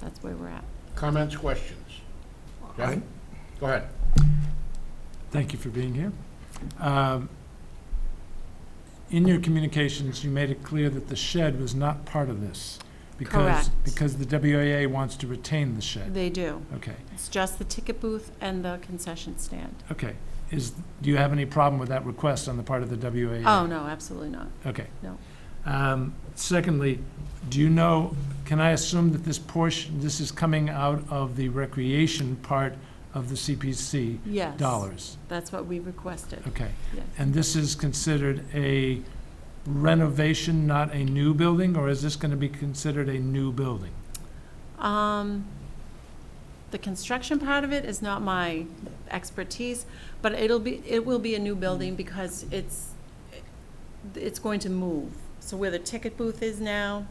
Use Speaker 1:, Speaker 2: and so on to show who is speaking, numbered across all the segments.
Speaker 1: that's where we're at.
Speaker 2: Comments, questions? Jeff?
Speaker 3: I-
Speaker 2: Go ahead.
Speaker 3: Thank you for being here. Um, In your communications, you made it clear that the shed was not part of this. because
Speaker 1: Correct.
Speaker 3: Because the WAA wants to retain the shed.
Speaker 1: They do.
Speaker 3: Okay, Oh,
Speaker 1: It's just the ticket booth and the concession stand.
Speaker 3: okay. Is, do you have any problem with that request on the part of the WAA?
Speaker 1: Oh, no, absolutely not.
Speaker 3: Okay.
Speaker 1: No.
Speaker 3: Um, Secondly, do you know, can I assume that this portion, this is coming out of the recreation part of the CPC
Speaker 1: Yes.
Speaker 3: dollars?
Speaker 1: That's what we requested,
Speaker 3: Okay.
Speaker 1: yes.
Speaker 3: And this is considered a renovation, not a new building, or is this going to be considered a new building?
Speaker 1: Um, the construction part of it is not my expertise, but it'll be, it will be a new building because it's, it's going to move. So where the ticket booth is now,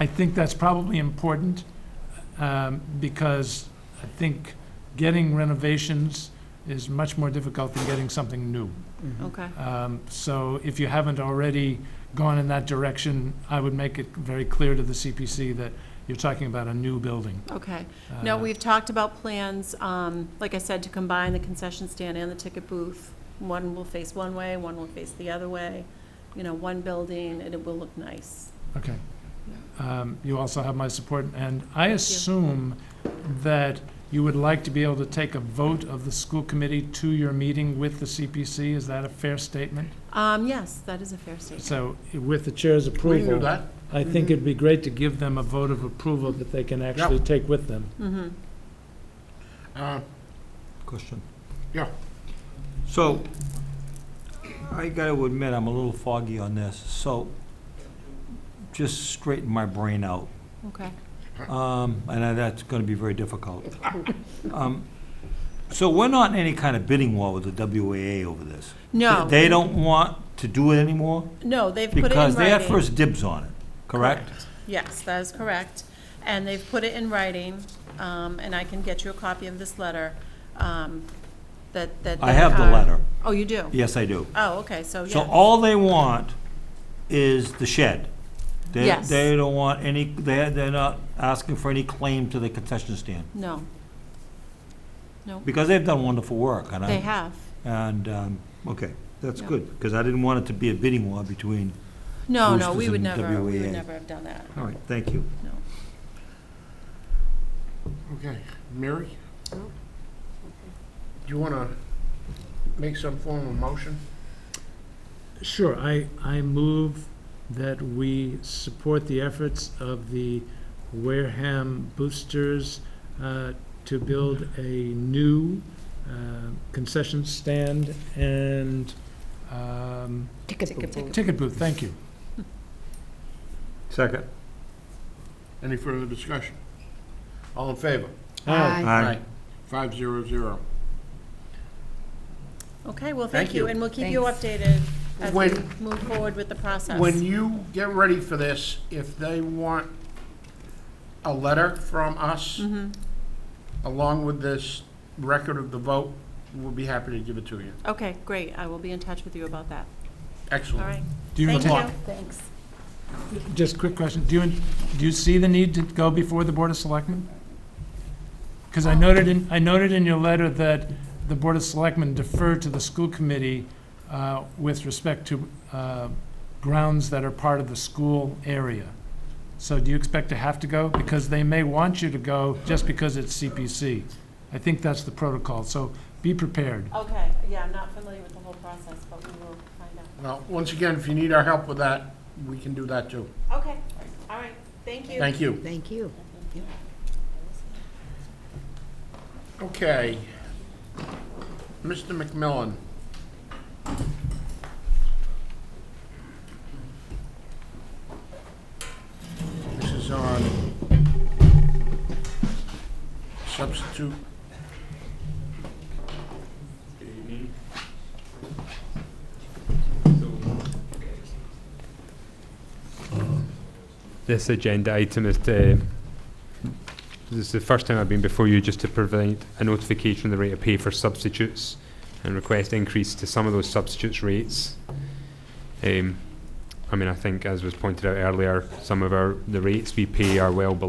Speaker 3: I think that's probably important, um, because I think getting renovations is much more difficult than getting something new.
Speaker 2: Mm.
Speaker 1: okay,
Speaker 3: Um, So if you haven't already gone in that direction, I would make it very clear to the CPC that you're talking about a new building.
Speaker 1: okay. No,
Speaker 3: Uh,
Speaker 1: we've talked about plans, um, like I said, to combine the concession stand and the ticket booth. One will face one way, one will face the other way, you know, one building, and it will look nice.
Speaker 3: Okay. Um, You also have my support, and I assume that you would like to be able to take a vote of the school committee to your meeting with the CPC. Is that a fair statement?
Speaker 1: Um, yes, that is a fair statement.
Speaker 3: So with the chair's
Speaker 2: We can do
Speaker 3: approval,
Speaker 2: that.
Speaker 3: I think it'd be great to give them a vote of approval that they can actually take with them.
Speaker 1: Mm-hmm.
Speaker 2: Uh,
Speaker 4: Question.
Speaker 2: Yeah.
Speaker 4: So, I gotta admit, I'm a little foggy on this, so just straighten my brain out.
Speaker 1: Okay.
Speaker 4: Um, and I- that's gonna be very difficult. Um, So we're not in any kind of bidding war with the WAA over this.
Speaker 1: No.
Speaker 4: They don't want to do it anymore
Speaker 1: No, they've put it in writing.
Speaker 4: because they had first dibs on it, correct?
Speaker 1: Yes, that is correct. And they've put it in writing, um, and I can get you a copy of this letter, um, that, that.
Speaker 4: I have the
Speaker 1: they are-
Speaker 4: letter.
Speaker 1: Oh, you do?
Speaker 4: Yes, I do.
Speaker 1: Oh, okay, so,
Speaker 4: So
Speaker 1: yeah,
Speaker 4: all they want is the shed. They,
Speaker 1: Yes.
Speaker 4: they don't want any, they're, they're not asking for any claim to the concession stand,
Speaker 1: no. No,
Speaker 4: because they've done wonderful work, and I.
Speaker 1: they have.
Speaker 4: And, um, okay, that's
Speaker 1: Yeah.
Speaker 4: good, because I didn't want it to be a bidding war between,
Speaker 1: No, no, we
Speaker 4: Roosters
Speaker 1: would
Speaker 4: and
Speaker 1: never, we would
Speaker 4: WAA.
Speaker 1: never have done that,
Speaker 4: all right, thank you.
Speaker 1: no.
Speaker 2: Okay, Mary? Do you want to make some form of motion?
Speaker 3: Sure, I, I move that we support the efforts of the Wareham Boosters uh, to build a new uh, concession stand and um,
Speaker 1: Ticket
Speaker 3: ticket booth, thank you.
Speaker 4: Second.
Speaker 2: Any further discussion? All in favor?
Speaker 4: Aye.
Speaker 2: Five zero zero.
Speaker 1: Okay, well,
Speaker 2: Thank
Speaker 1: thank you,
Speaker 2: you.
Speaker 1: and we'll keep you updated as we
Speaker 2: When-
Speaker 1: move forward with the process.
Speaker 2: When you get ready for this, if they want a letter from us
Speaker 1: hmm
Speaker 2: along with this record of the vote, we'll be happy to give it to you.
Speaker 1: okay, great, I will be in touch with you about that, all
Speaker 2: Excellent.
Speaker 1: right?
Speaker 3: Do you
Speaker 1: Thank
Speaker 3: intend-
Speaker 1: you. Thanks.
Speaker 3: Just quick question, do you, do you see the need to go before the Board of Selectmen? Because I noted in, I noted in your letter that the Board of Selectmen defer to the school committee uh, with respect to uh, grounds that are part of the school area. So do you expect to have to go? Because they may want you to go just because it's CPC. I think that's the protocol, so be prepared.
Speaker 1: Okay, yeah, I'm not familiar with the whole process, but we will find out.
Speaker 2: Well, once again, if you need our help with that, we can do that too.
Speaker 1: Okay, all right, thank you.
Speaker 2: Thank you.
Speaker 5: Thank you.
Speaker 2: Okay. Mr. McMillan, this is on substitute.
Speaker 6: Good evening. This agenda item is to, this is the first time I've been before you just to provide a notification of the rate of pay for substitutes and request increase to some of those substitutes rates. Um, I mean, I think as was pointed out earlier, some of our, the rates we pay are well below